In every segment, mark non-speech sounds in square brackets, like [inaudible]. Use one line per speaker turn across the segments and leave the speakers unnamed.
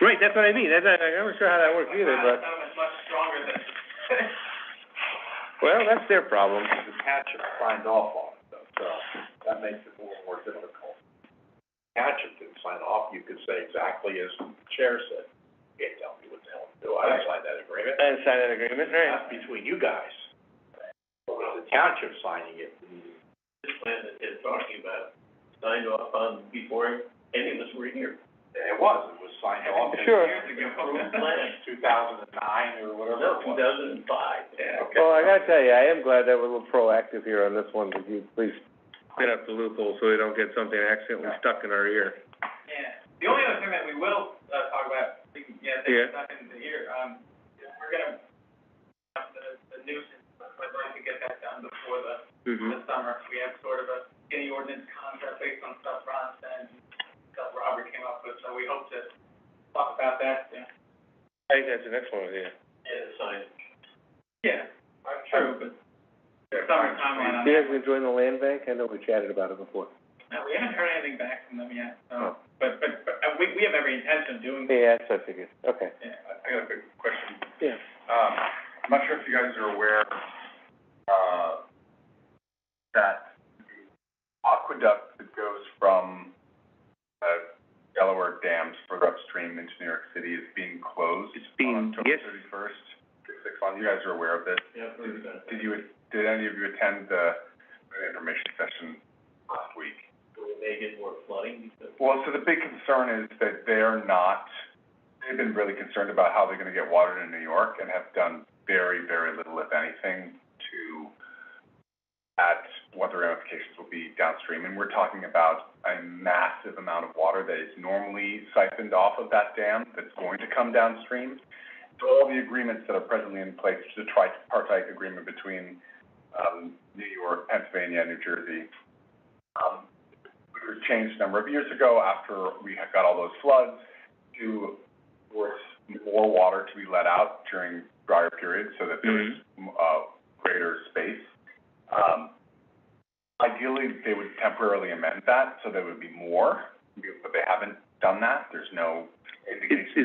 Right, that's what I mean, that's, I'm not sure how that works either,
It's
but,
not much, much stronger than
well, that's their problem.
the township signed off on it, though, so that makes it a little more difficult. Township didn't sign off, you could say exactly as the chair said, can't tell me what the hell to do, I didn't sign that agreement.
And sign that agreement,
That's between you guys. But with the township signing it.
this plan that they're talking about, signed off on before any of us were here.
It was, it was signed off in.
Sure.
Approved plan,
Two thousand and nine
no,
or whatever it
two
was.
thousand and five.
Yeah, okay.
Well, I gotta tell you, I am glad that we're a little proactive here on this one, Could you please spin up the loophole so we don't get something accidentally stuck in our ear.
Yeah, the only other thing that we will, uh, talk about, we can, yeah,
Yeah.
that's nothing to hear, um, is we're gonna, have the, the nuisance, I'd like to get that done before the,
Mm-hmm.
the summer. We have sort of a skinny ordinance concept based on stuff Ron said, and stuff Robert came up with, so we hope to talk about that, uh, yeah.
I think that's an excellent idea.
Yeah, signed.
Yeah, true, but there's summer timeline on
You guys
that.
been enjoying the land bank? I know we chatted about it before.
Now, we haven't heard anything back from them yet,
Oh.
so, but, but, but, uh, we, we have every intention of doing,
Yeah, that's what I figured, okay.
yeah. I got a quick question.
Yeah.
Um, I'm not sure if you guys are aware, uh, that the aqueduct that goes from, uh, Delaware dams further upstream into New York City is being closed
It's
on
being-
October
yes.
thirty-first. Six on, you guys are aware of this.
Yeah, I've heard about
Did
that.
you, did any of you attend the the information session last week?
Will they get more flooding because?
Well, so the big concern is that they're not, they've been really concerned about how they're gonna get water in New York and have done very, very little, if anything, to at what the ramifications will be downstream. And we're talking about a massive amount of water that is normally siphoned off of that dam that's going to come downstream. So all the agreements that are presently in place, the tripartite agreement between, um, New York, Pennsylvania, and New Jersey, um, which was changed a number of years ago after we had got all those floods to force more water to be let out during drier periods so that there is,
Mm-hmm.
uh, greater space. Um, ideally, they would temporarily amend that so there would be more, but they haven't done that. There's no indication.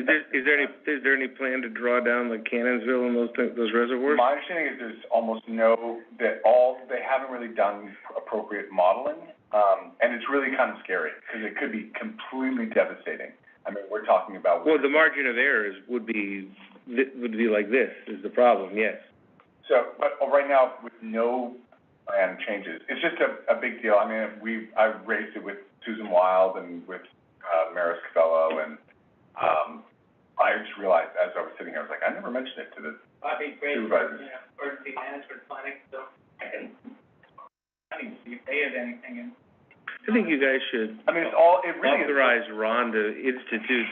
Is, is there, is there any, is there any plan to draw down like Cannonsville and those, thi- those reservoirs?
My understanding is there's almost no, that all, they haven't really done appropriate modeling, um, and it's really kind of scary, because it could be completely devastating. I mean, we're talking about,
Well, the margin of error is, would be, thi- would be like this, is the problem, yes.
so, but oh, right now, with no plan changes, it's just a, a big deal. I mean, we, I raised it with Susan Wild and with, uh, Maris Cavello, and, um, I just realized as I was sitting here, I was like, I never mentioned it to the
I think great,
supervisors.
emergency management planning, so.
I didn't see if they had anything in.
I think you guys should
I mean, it's all, it really is.
authorize Ron to institute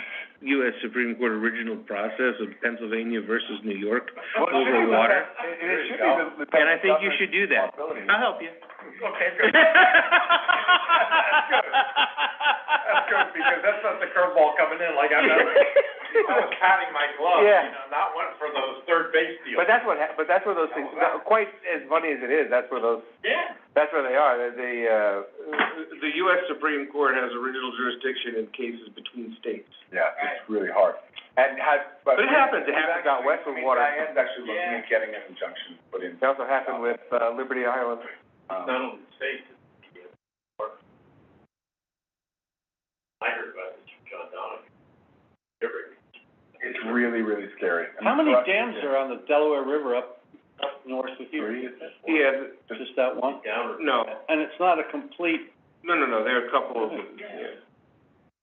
US Supreme Court original process of Pennsylvania versus New York.
Well, it should
over
be the-
water.
It, it should be the, the.
And I think you should do that.
responsibility.
I'll help [laughs] you.
Okay, good. [laughs] That's good. That's good, because that's not the curveball coming in, like I know, I was counting my gloves, you
Yeah.
know, not one for those third base
[laughs]
deals.
But that's what, hap- but that's where those things, no, quite as funny as it is, that's where those,
Yeah.
that's where they are. The- The, uh, the US Supreme Court has original jurisdiction in cases between states.
Yeah, it's really hard. And has, but.
But it happens. It happens out west with water.
I mean, Diane's actually looking
Yeah.
at getting an injunction put in.
It also happened with, uh, Liberty Island.
Um,
Not only the state, it's the- I heard about it from John Donovan. Every,
It's really, really scary. I mean,
How many
for us,
dams
it's
are on the Delaware River up, up north with you?
Three.
Yeah, th-
Just that one?
down or.
no,
And it's not a complete,
no, no, no, there are a couple of them.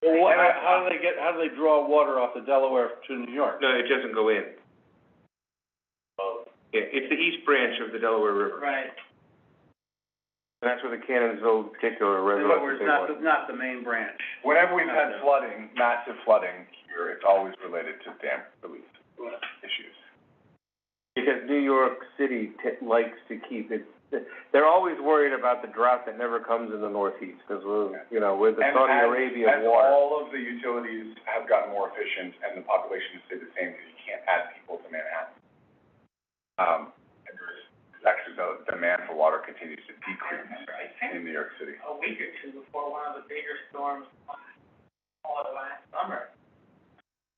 well, what, how do they get, how do they draw water off the Delaware to New York?
No, it doesn't go in.
Oh,
Yeah, it's the east branch of the Delaware River.
Right.
And that's where the Cannonsville particular reservoir is.
not the main branch.
Whenever we've had flooding, massive flooding here, it's always related to dam relief issues.
Because New York City t- likes to keep it, they're always worried about the drought that never comes in the northeast, because we're, you know, we're the
And
Saudi
as-
Arabia of
As
water.
all of the utilities have gotten more efficient and the population has stayed the same, because you can't add people to Manhattan. Um, and there's, actually, the demand for water continues to decrease in New York City.
a week or two before one of the bigger storms, all of last summer,